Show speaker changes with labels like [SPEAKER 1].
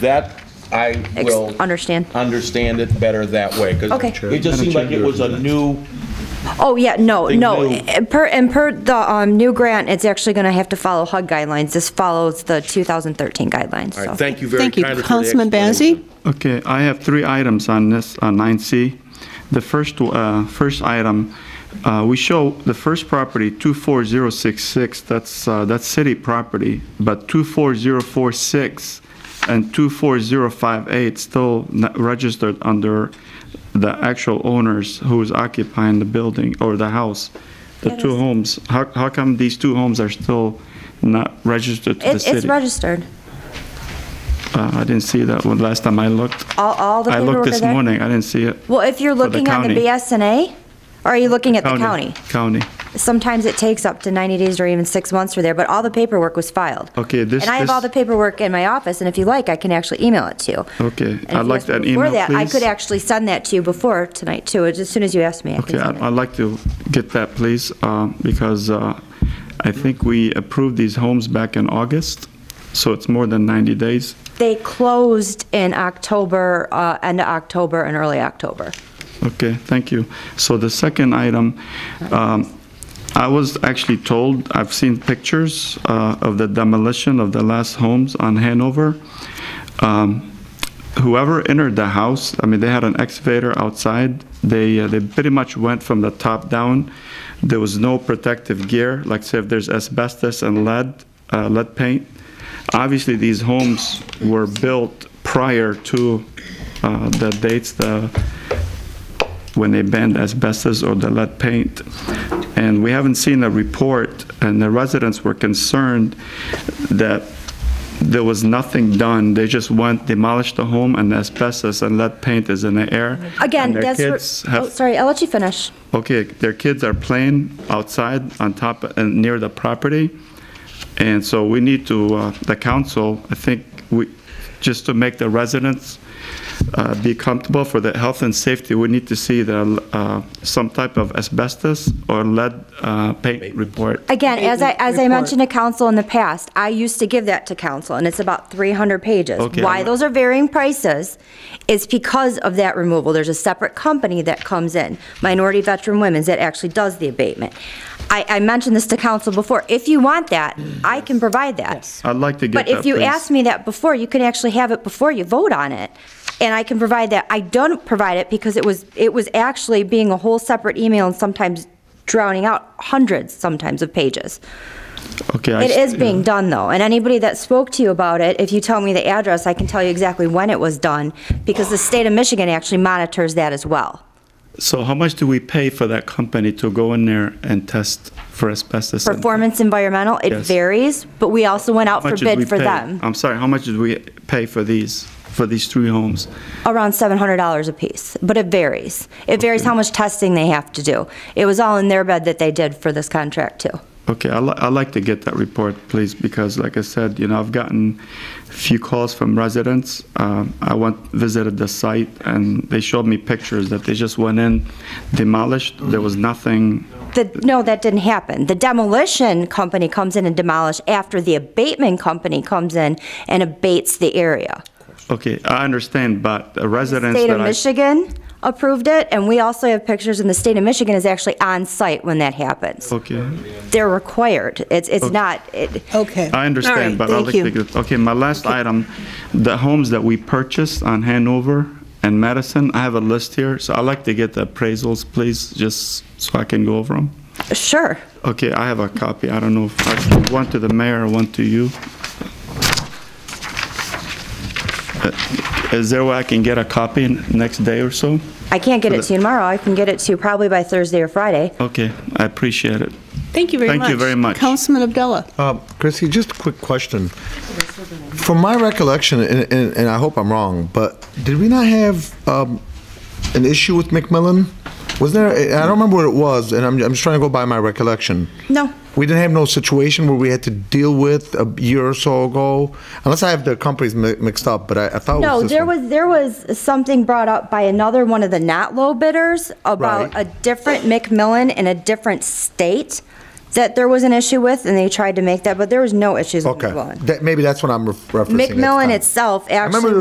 [SPEAKER 1] That, I
[SPEAKER 2] Ex-
[SPEAKER 1] will.
[SPEAKER 2] understand.
[SPEAKER 1] Understand it better that way, because
[SPEAKER 2] Okay.
[SPEAKER 1] it just seemed like it was a new,
[SPEAKER 2] Oh, yeah, no,
[SPEAKER 1] Something
[SPEAKER 2] no.
[SPEAKER 1] new.
[SPEAKER 2] And per, and per the, um, new grant, it's actually gonna have to follow HUD guidelines. This follows the 2013 guidelines,
[SPEAKER 1] all right,
[SPEAKER 2] so.
[SPEAKER 1] thank you very
[SPEAKER 3] Thank you.
[SPEAKER 1] kindly for the
[SPEAKER 3] Councilman
[SPEAKER 1] explanation.
[SPEAKER 3] Bazey?
[SPEAKER 4] Okay, I have three items on this, on 9C. The first, uh, first item, uh, we show the first property, 24066, that's, uh, that's city property, but 24046 and 24058 still not registered under the actual owners who is occupying the building or the house, the
[SPEAKER 2] That
[SPEAKER 4] two
[SPEAKER 2] is-
[SPEAKER 4] homes. How, how come these two homes are still not registered to the
[SPEAKER 2] It's,
[SPEAKER 4] city?
[SPEAKER 2] it's registered.
[SPEAKER 4] Uh, I didn't see that one last time I looked.
[SPEAKER 2] All, all the
[SPEAKER 4] I
[SPEAKER 2] paperwork
[SPEAKER 4] looked
[SPEAKER 2] is
[SPEAKER 4] this
[SPEAKER 2] there.
[SPEAKER 4] morning, I didn't see it.
[SPEAKER 2] Well, if you're
[SPEAKER 4] the
[SPEAKER 2] looking on the
[SPEAKER 4] county.
[SPEAKER 2] BSNA, or are you looking at the county?
[SPEAKER 4] County.
[SPEAKER 2] Sometimes it takes up to 90 days or even six months for there, but all the paperwork was filed.
[SPEAKER 4] Okay, this-
[SPEAKER 2] And I have all the
[SPEAKER 4] this-
[SPEAKER 2] paperwork in my office, and if you like, I can actually email it to you.
[SPEAKER 4] Okay,
[SPEAKER 2] And if
[SPEAKER 4] I'd
[SPEAKER 2] you
[SPEAKER 4] like
[SPEAKER 2] ask
[SPEAKER 4] that
[SPEAKER 2] me before
[SPEAKER 4] email,
[SPEAKER 2] that, I could
[SPEAKER 4] please.
[SPEAKER 2] actually send that to you before tonight, too, as soon as you ask me. I can
[SPEAKER 4] Okay,
[SPEAKER 2] send
[SPEAKER 4] I-
[SPEAKER 2] that.
[SPEAKER 4] I'd like to get that, please, uh, because uh, I think we approved these homes back in August, so it's more than 90 days.
[SPEAKER 2] They closed in October, uh, end of October and early October.
[SPEAKER 4] Okay, thank you. So the second item, um, I was actually told, I've seen pictures uh, of the demolition of the last homes on Hanover. Um, Whoever entered the house, I mean, they had an excavator outside. They, uh, they pretty much went from the top down. There was no protective gear, like say if there's asbestos and lead, uh, lead paint. Obviously, these homes were built prior to uh, the dates the, when they banned asbestos or the lead paint. And we haven't seen a report, and the residents were concerned that there was nothing done. They just went, demolished the home, and asbestos and lead paint is in the air.
[SPEAKER 2] Again,
[SPEAKER 4] And their
[SPEAKER 2] that's, where-
[SPEAKER 4] kids
[SPEAKER 2] oh,
[SPEAKER 4] have,
[SPEAKER 2] sorry, I'll let you finish.
[SPEAKER 4] okay, their kids are playing outside on top, and near the property. And so we need to, uh, the council, I think, we, just to make the residents uh, be comfortable for the health and safety, we need to see the, uh, some type of asbestos or lead uh, paint report.
[SPEAKER 2] Again, as I, as I
[SPEAKER 3] Report.
[SPEAKER 2] mentioned to council in the past, I used to give that to council, and it's about 300 pages.
[SPEAKER 4] Okay,
[SPEAKER 2] Why
[SPEAKER 4] I'm-
[SPEAKER 2] those are varying prices is because of that removal. There's a separate company that comes in, Minority Veteran Women's, that actually does the abatement. I, I mentioned this to council before. If you want that, I can provide that.
[SPEAKER 4] I'd like to get
[SPEAKER 2] But
[SPEAKER 4] that,
[SPEAKER 2] if you
[SPEAKER 4] please.
[SPEAKER 2] ask me that before, you can actually have it before you vote on it. And I can provide that. I don't provide it because it was, it was actually being a whole separate email and sometimes drowning out hundreds sometimes of pages.
[SPEAKER 4] Okay, I
[SPEAKER 2] It
[SPEAKER 4] s-
[SPEAKER 2] is being done though. And anybody that spoke to you about it, if you tell me the address, I can tell you exactly when it was done because the state of Michigan actually monitors that as well.
[SPEAKER 4] So how much do we pay for that company to go in there and test for asbestos? and-
[SPEAKER 2] Performance Environmental, it
[SPEAKER 4] Yes.
[SPEAKER 2] varies, but we also went out
[SPEAKER 4] How
[SPEAKER 2] for
[SPEAKER 4] much did we
[SPEAKER 2] bid for
[SPEAKER 4] pay?
[SPEAKER 2] them,
[SPEAKER 4] I'm sorry, how much did we pay for these, for these three homes?
[SPEAKER 2] around $700 apiece, but it varies. It varies how much testing they have to do. It was all in their bid that they did for this contract too.
[SPEAKER 4] Okay, I'd, li- I'd like to get that report, please, because like I said, you know, I've gotten a few calls from residents. Um, I went, visited the site, and they showed me pictures that they just went in, demolished, there was nothing.
[SPEAKER 2] The, no, that didn't happen. The demolition company comes in and demolish after the abatement company comes in and abates the area.
[SPEAKER 4] Okay, I understand, but the residents
[SPEAKER 2] State of
[SPEAKER 4] that I...
[SPEAKER 2] Michigan approved it, and we also have pictures, and the state of Michigan is actually on site when that happens.
[SPEAKER 4] Okay,
[SPEAKER 2] They're required. It's, it's not, it,
[SPEAKER 3] Okay.
[SPEAKER 4] I understand, but I'd like to get... Okay, my last item, the homes that we purchased on Hanover and Madison, I have a list here, so I'd like to get the appraisals, please, just so I can go over them.
[SPEAKER 2] sure.
[SPEAKER 4] Okay, I have a copy. I don't know if I can, one to the mayor, one to you. Uh, Is there a way I can get a copy n- next day or so?
[SPEAKER 2] I can't get it to you tomorrow. I can get it to you probably by Thursday or Friday.
[SPEAKER 4] Okay, I appreciate it.
[SPEAKER 3] Thank you very
[SPEAKER 4] Thank
[SPEAKER 3] much.
[SPEAKER 4] you very much.
[SPEAKER 3] Councilman Abdullah.
[SPEAKER 5] Uh, Chrissy, just a quick question. From my recollection, and, and, and I hope I'm wrong, but did we not have um, an issue with McMillan? Was there? I don't remember what it was, and I'm, I'm just trying to go by my recollection.
[SPEAKER 2] No.
[SPEAKER 5] We didn't have no situation where we had to deal with a year or so ago, unless I have the companies mi- mixed up. But I, I thought it
[SPEAKER 2] No,
[SPEAKER 5] was this
[SPEAKER 2] there
[SPEAKER 5] one.
[SPEAKER 2] was, there was something brought up by another one of the not low bidders about
[SPEAKER 5] Right.
[SPEAKER 2] a different McMillan in a different state. that there was an issue with, and they tried to make that, but there was no issues with
[SPEAKER 5] Okay,
[SPEAKER 2] McMillan.
[SPEAKER 5] That- maybe that's what I'm ref- referencing. at the
[SPEAKER 2] McMillan
[SPEAKER 5] time.
[SPEAKER 2] itself
[SPEAKER 5] I remember
[SPEAKER 2] actually
[SPEAKER 5] there